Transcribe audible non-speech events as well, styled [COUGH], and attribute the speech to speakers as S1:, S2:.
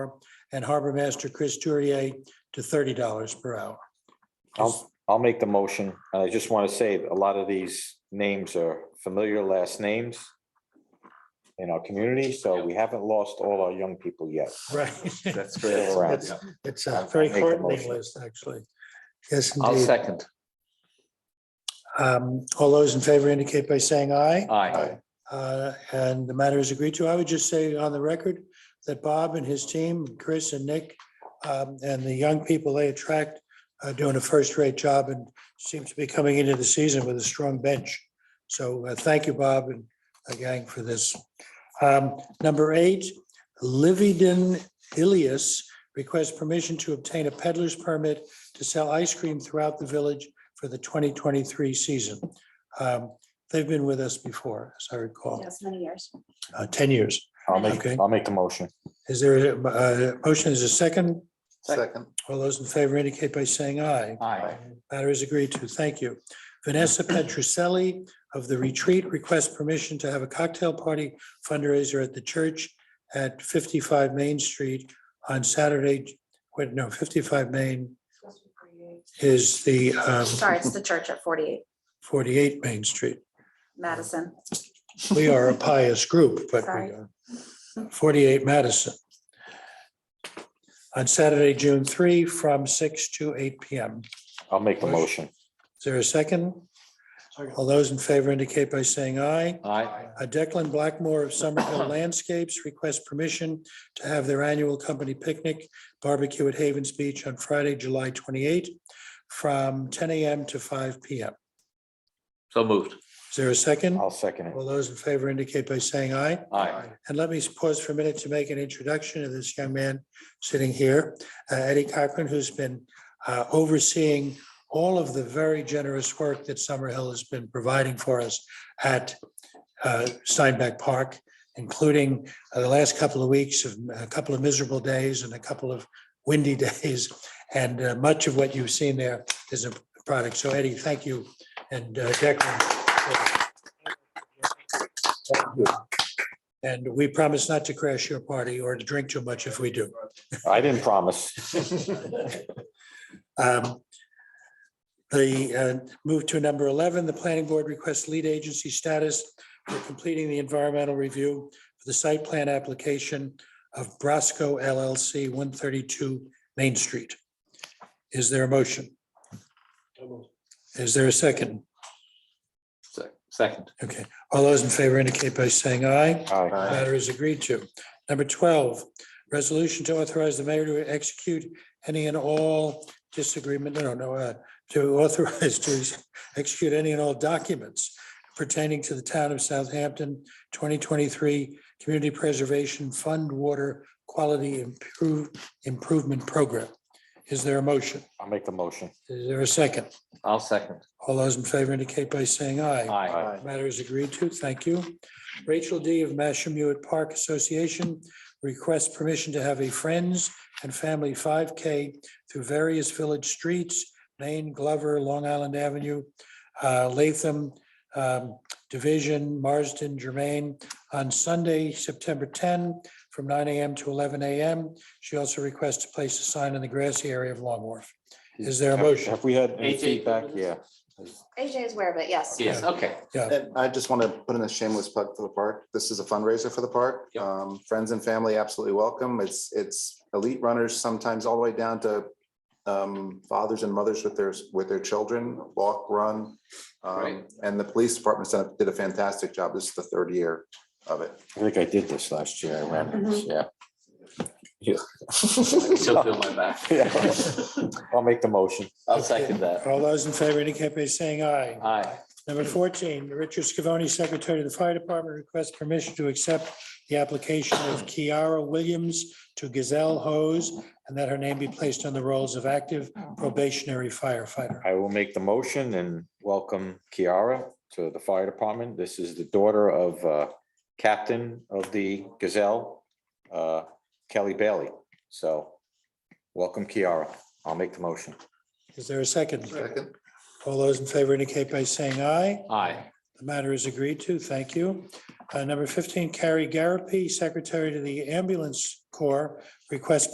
S1: and Harbor Master Chris Turier to thirty dollars per hour.
S2: I'll, I'll make the motion. I just want to say, a lot of these names are familiar last names in our community, so we haven't lost all our young people yet.
S1: [LAUGHS] Right.
S3: That's
S2: Still around.
S1: It's- It's a very
S2: I'll make the
S1: heartening
S2: motion.
S1: list, actually. Yes,
S3: I'll
S1: indeed.
S3: second.
S1: Um, All those in favor indicate by saying aye.
S3: Aye.
S1: Uh, And the matter is agreed to. I would just say on the record that Bob and his team, Chris and Nick, um, and the young people they attract are doing a first-rate job and seems to be coming into the season with a strong bench. So uh, thank you, Bob and uh, gang for this. Um, Number eight, Livington Ilias requests permission to obtain a peddler's permit to sell ice cream throughout the village for the 2023 season. Um, They've been with us before, as I recall,
S4: Yes, many years.
S1: uh, 10 years.
S2: I'll make,
S1: Okay.
S2: I'll make the motion.
S1: Is there a uh, motion? Is there a second?
S3: Second.
S1: All those in favor indicate by saying aye.
S3: Aye.
S1: Matter is agreed to. Thank you. Vanessa Petruselli of The Retreat requests permission to have a cocktail party fundraiser at the church at 55 Main Street on Saturday, wait, no, 55 Main is the um,
S4: Sorry, it's the church at forty-eight
S1: 48 Main Street.
S4: Madison.
S1: We are a pious group, but we
S4: Sorry.
S1: are 48 Madison. On Saturday, June 3, from 6 to 8 PM.
S2: I'll make the motion.
S1: Is there a second? All those in favor indicate by saying aye.
S3: Aye.
S1: Uh, Declan Blackmore of Somerville Landscapes requests permission to have their annual company picnic barbecue at Havens Beach on Friday, July 28, from ten AM to five PM.
S3: So moved.
S1: Is there a second?
S2: I'll second it.
S1: All those in favor indicate by saying aye.
S3: Aye.
S1: And let me pause for a minute to make an introduction of this young man sitting here, uh, Eddie Cochran, who's been uh, overseeing all of the very generous work that Summerhill has been providing for us at uh, Steinbeck Park, including uh, the last couple of weeks of a couple of miserable days and a couple of windy [LAUGHS] days. And uh, much of what you've seen there is a product. So Eddie, thank you. And uh, Declan. Thank you. And we promise not to crash your party or to drink too much if we do.
S2: I didn't
S3: [LAUGHS]
S2: promise.
S1: Um, The, uh, move to number 11, the planning board requests lead agency status for completing the environmental review for the site plan application of Brasco LLC, 132 Main Street. Is there a motion? Is there a second?
S3: Se- Second.
S1: Okay, all those in favor indicate by saying aye.
S2: Aye.
S3: Aye.
S1: Matter is agreed to. Number twelve, resolution to authorize the mayor to execute any and all disagreement, no, no, uh, to authorize to execute any and all documents pertaining to the town of Southampton, twenty twenty-three Community Preservation Fund Water Quality Improve, Improvement Program. Is there a motion?
S2: I'll make the motion.
S1: Is there a second?
S3: I'll second.
S1: All those in favor indicate by saying aye.
S3: Aye.
S1: Matter is agreed to. Thank you. Rachel D. of Mashamuet Park Association requests permission to have a Friends and Family 5K through various village streets, Maine, Glover, Long Island Avenue, uh, Latham, um, Division, Marsden, Germain, on Sunday, September 10, from 9 AM to 11 AM. She also requests to place a sign in the grassy area of Long Wharf. Is there a motion?
S2: Have we had any
S3: Eight, eight.
S2: feedback? Yeah.
S4: AJ is aware of it, yes.
S3: Yes, [LAUGHS] okay.
S5: And I just want to put in a shameless plug for the park. This is a fundraiser for the park.
S3: Yep.
S5: Um, Friends and family absolutely welcome. It's, it's elite runners, sometimes all the way down to um, fathers and mothers with their, with their children, walk, run. Um,
S3: Great.
S5: And the police department set- did a fantastic job. This is the third year of it.
S2: I think I did this last year. I ran this, yeah.
S3: I Still feel my back.
S2: Yeah. [LAUGHS] I'll make the motion.
S3: [LAUGHS] I'll second [LAUGHS] that.
S1: All those in favor indicate by saying aye.
S3: Aye.
S1: Number fourteen, Richard Scavone, Secretary of the Fire Department, requests permission to accept the application of Kiara Williams to Gazelle Hose and that her name be placed on the rolls of active probationary firefighter.
S2: I will make the motion and welcome Kiara to the fire department. This is the daughter of uh, Captain of the Gazelle, uh, Kelly Bailey. So welcome Kiara. I'll make the motion.
S1: Is there a second?
S5: Second.
S1: All those in favor indicate by saying aye.
S3: Aye.
S1: The matter is agreed to. Thank you. Uh, Number 15, Carrie Garapi, Secretary to the Ambulance Corps, requests